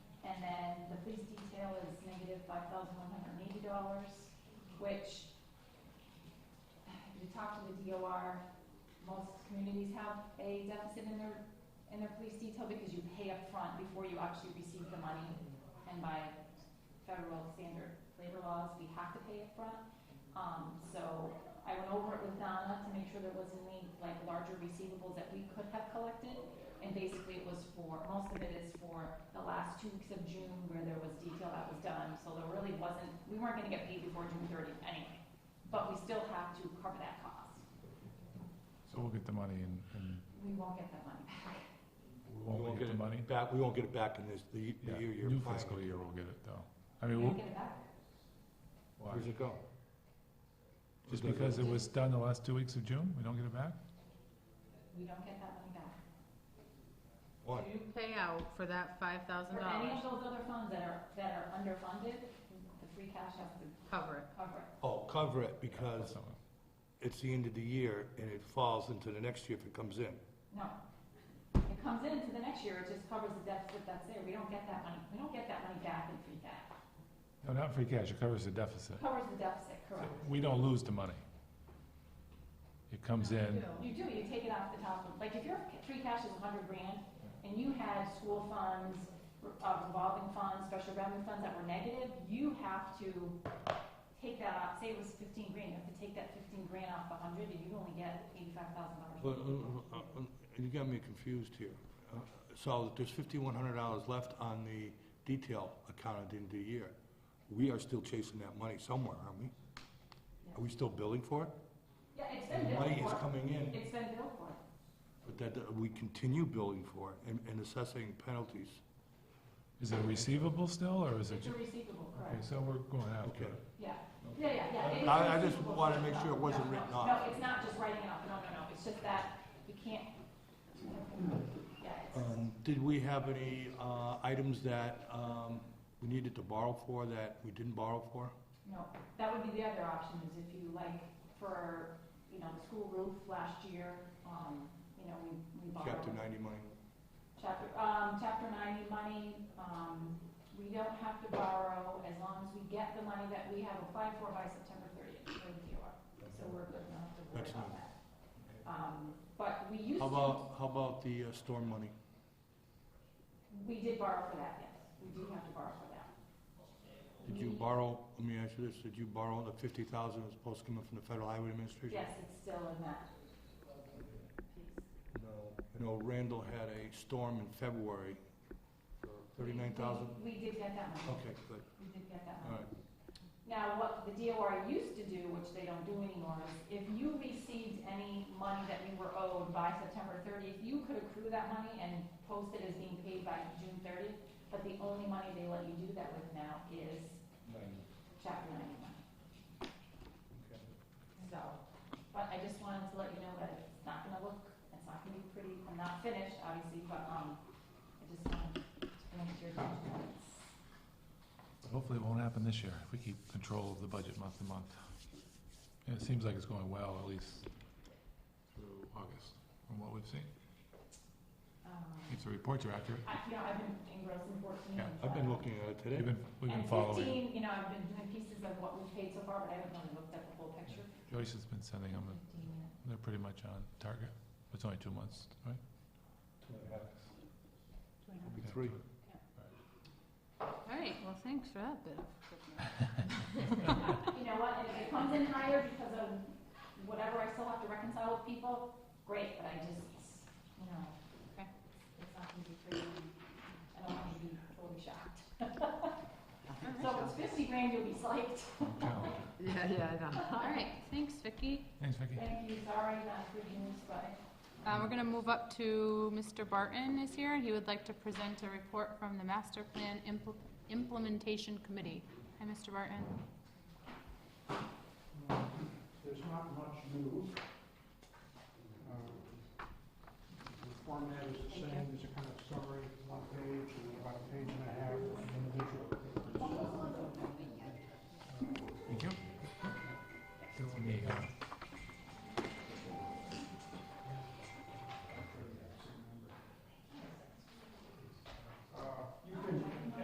negative five thousand one hundred and eighty dollars, which you talk to the DOR, most communities have a deficit in their, in their police detail because you pay up front before you actually receive the money. And by federal standard labor laws, we have to pay up front. Um, so I went over it with Donna to make sure there wasn't any, like, larger receivables that we could have collected. And basically it was for, most of it is for the last two weeks of June where there was detail that was done, so there really wasn't, we weren't gonna get paid before June thirtieth anyway. But we still have to cover that cost. So we'll get the money and, and We won't get that money back. won't we get the money? Back, we won't get it back in this, the Yeah, the year you're new applying fiscal it. year we'll get it though. I mean, We we'll, won't get it back. why? Where's it go? just Where does because it was done the last two weeks of June, we don't get it back? We don't get that money back. Why? You pay out for that five thousand For any of dollars, those other funds that are, that are underfunded, the free cash has to cover it. cover it. Oh, cover it because So- it's the end of the year and it falls into the next year if it comes in. No. It comes into the next year, it just covers the deficit that's there. We don't get that money, we don't get that money back in free cash. No, not free cash, it covers the deficit. Covers the deficit, correct. We don't lose the money. It comes in, You do, you take it off the top, of- like if your free cash is a hundred grand and you had school funds, uh, revolving funds, special revenue funds that were negative, you have to take that off, say it was fifteen grand, you have to take that fifteen grand off the hundred and you only get eighty-five thousand Well, dollars. uh, uh, uh, You got me confused here. Uh, So there's fifty-one hundred dollars left on the detail account at the end of the year. We are still chasing that money somewhere, aren't we? Are we still billing for it? Yeah, it's been The money billed is for, coming in, it's been billed for. but that, that we continue billing for it and, and assessing penalties. is it receivable still, or is it? It's a ju- receivable, Okay, correct, so we're going after it. Okay. yeah. Yeah, yeah, yeah. it is I- I just receivable. wanted to make sure it No, wasn't no, written no. off. No, it's not just writing it off, no, no, no, it's just that you can't, yeah, it's. Um, Did we have any uh, items that um, we needed to borrow for that we didn't borrow for? No, that would be the other option, is if you like, for, you know, the school roof last year, um, you know, we, we borrowed. Chapter 90 money? Chapter, um, chapter ninety money, um, we don't have to borrow as long as we get the money that we have applied for by September thirtieth for the DOR. So we're good enough to worry about that. Um, but we used How to, about, how about the uh, storm money? we did borrow for that, yes, we do have to borrow for that. Did you We- borrow, let me ask you this, did you borrow the 50,000 that was supposed to come in from the Federal Highway Administration? Yes, it's still in that piece. No. You know, Randall had a storm in February, We- we- 39,000? We did get that money, Okay, good, we did get that money. all right. Now, what the DOR used to do, which they don't do anymore, is if you received any money that you were owed by September thirtieth, you could accrue that money and post it as being paid by June thirtieth, but the only money they let you do that with now is chapter ninety money, Okay. so. But I just wanted to let you know that it's not gonna look, it's not gonna be pretty, I'm not finished, obviously, but, um, I just wanted to bring it to your attention. that it's- Hopefully it won't happen this year, if we keep control of the budget month to month. And it seems like it's going well, at least through August, from what we've seen. Um, If the reports are accurate, I, you know, I've been engrossed in fourteen. Yeah, I've been looking at it we've today. been, we've been And following. fifteen, you know, I've been doing pieces of what we've paid so far, but I haven't really looked at the whole picture. Joyce has been sending them, and Fifteen, yeah. they're pretty much on target. It's only two months, right? Maybe three. All right, well, thanks for that bit of. You know what, and if it comes in higher because of whatever I still have to reconcile with people, great, but I just, you know, Okay. it's not gonna be pretty. I don't want you to be totally shocked. So if it's fifty grand, you'll be psyched. Challenge. Yeah, yeah, I know. All right, thanks, Vicki. Thanks, Vicki. Thank you, sorry, not good news, but Uh, we're gonna move up to Mr. Barton is here, and he would like to present a report from the Master Plan Impl- Implementation Committee. Hi, Mr. Barton. There's not much new. Uh, Um, The format is the same, it's a kind of summary, one page,